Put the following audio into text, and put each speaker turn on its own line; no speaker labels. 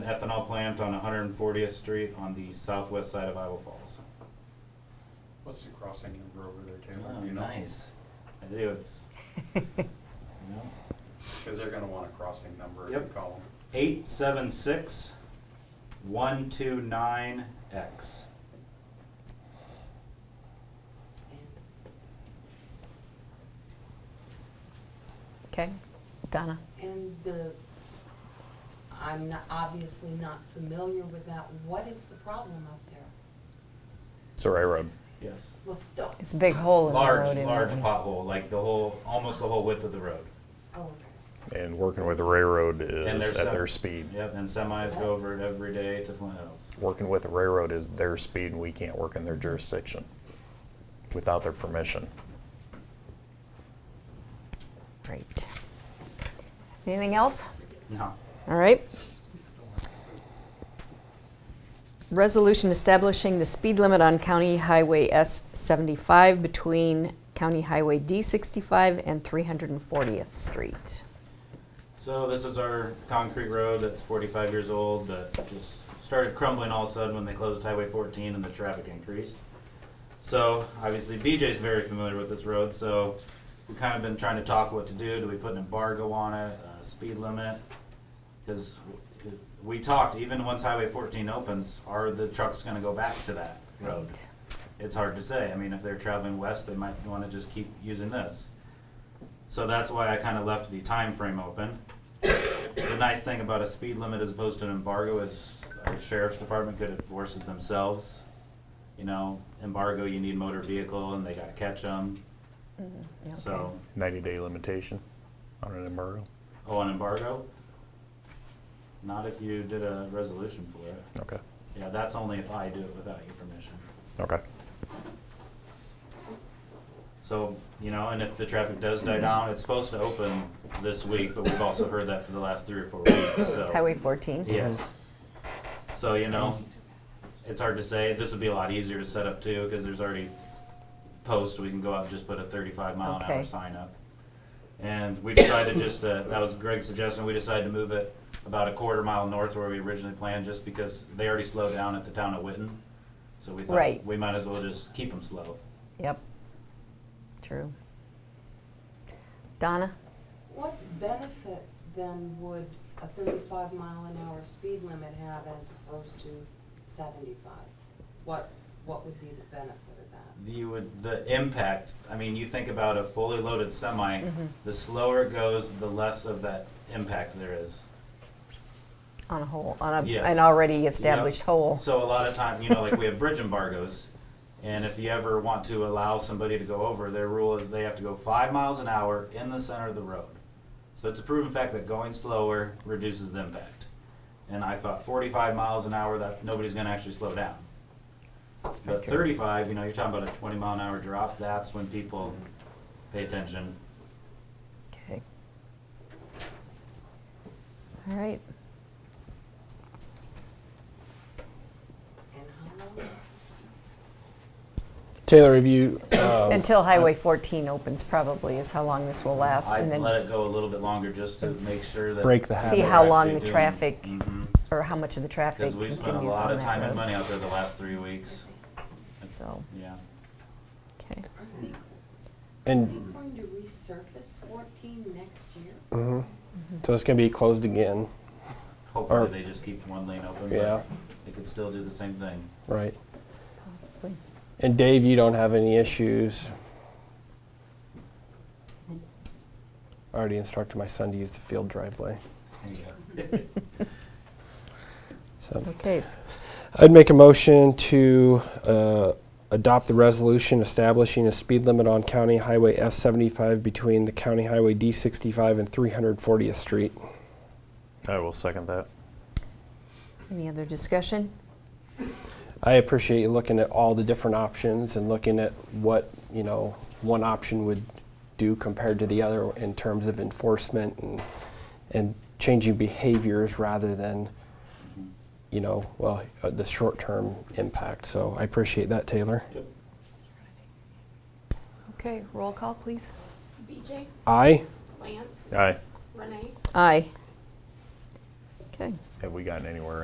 ethanol plant on 140th Street on the southwest side of Iowa Falls.
What's the crossing number over there, Taylor?
Oh,
Do you know?
nice. I do, it's, you know,
Because they're gonna want a crossing number in
Yep.
the column.
876 129X.
Okay, Donna.
And the, I'm not- obviously not familiar with that. What is the problem up there?
Saray Road.
Yes.
Look, don't-
It's a big hole in the road.
Large,
isn't
large
it?
pothole, like the whole, almost the whole width of the road.
oh, okay.
And working with the railroad
And
is
there's
at
some-
their speed.
Yep, and semis go over it every day to Flint Hills.
Working with the railroad is their speed, and we can't work in their jurisdiction without their permission.
Great. Anything else?
No.
All right. Resolution establishing the speed limit on County Highway S seventy-five between County Highway D sixty-five and three hundred and fortieth Street.
So this is our concrete road that's 45 years old that just started crumbling all of a sudden when they closed Highway 14 and the traffic increased. So obviously BJ's very familiar with this road, so we've kind of been trying to talk what to do. Do we put an embargo on it, a speed limit? Because we talked, even once Highway 14 opens, are the trucks going to go back to that road? It's hard to say. I mean, if they're traveling west, they might want to just keep using this. So that's why I kind of left the time frame open. The nice thing about a speed limit as opposed to an embargo is our sheriff's department could enforce it themselves. You know, embargo, you need motor vehicle and they gotta catch them, so,
90-day limitation on an embargo.
oh, an embargo? Not if you did a resolution for it.
Okay,
Yeah, that's only if I do it without your permission.
okay.
So, you know, and if the traffic does die down, it's supposed to open this week, but we've also heard that for the last three or four weeks, so.
Highway fourteen?
Yes. So, you know, it's hard to say. This would be a lot easier to set up too, because there's already posts. We can go out and just put a thirty-five mile an hour
Okay.
sign up. And we decided just, uh, that was Greg's suggestion. We decided to move it about a quarter mile north where we originally planned, just because they already slowed down at the town of Witten. So we thought,
Right.
we might as well just keep them slow.
Yep. True. Donna?
What benefit then would a thirty-five mile an hour speed limit have as opposed to seventy-five? What, what would be the benefit of that?
You would, the impact, I mean, you think about a fully loaded semi,
Mm-hmm.
the slower it goes, the less of that impact there is.
On a hole, on a,
Yes.
um, an already established
Yep.
hole.
So a lot of time, you know, like we have bridge embargoes, and if you ever want to allow somebody to go over, their rule is they have to go five miles an hour in the center of the road. So it's a proven fact that going slower reduces the impact. And I thought forty-five miles an hour, that nobody's gonna actually slow down. But thirty-five, you know, you're talking about a twenty mile an hour drop, that's when people pay attention.
Okay. All right.
And how long?
Taylor, have you, um,
Until Highway 14 opens probably is how long this will last.
I'd
and then
let it go a little bit longer just to make sure that.
break the
See
habit.
how long
Actually
the
doing-
traffic,
Mhm.
or how much of the traffic
Because we've
continues
spent a
on
lot of time and
that
money
road.
out there the last three weeks. It's-
So-
Yeah.
Okay.
Aren't they- Are
And
they going to resurface fourteen next year?
so it's going to be closed again,
Hopefully
Or-
they just keep one lane open, but
Yeah.
they could still do the same thing.
right?
Possibly.
And Dave, you don't have any issues? I already instructed my son to use the field driveway.
There you go.
So
Okay, s-
I'd make a motion to uh, adopt the resolution establishing a speed limit on County Highway S75 between the County Highway D65 and 340th Street.
I will second that.
any other discussion?
I appreciate you looking at all the different options and looking at what, you know, one option would do compared to the other in terms of enforcement and, and changing behaviors rather than, you know, well, uh, the short-term impact. So I appreciate that, Taylor.
Yep.
Okay, roll call, please.
BJ,
Aye?
Lance,
Aye.
Renee,
Aye. Okay,
Have we gotten anywhere in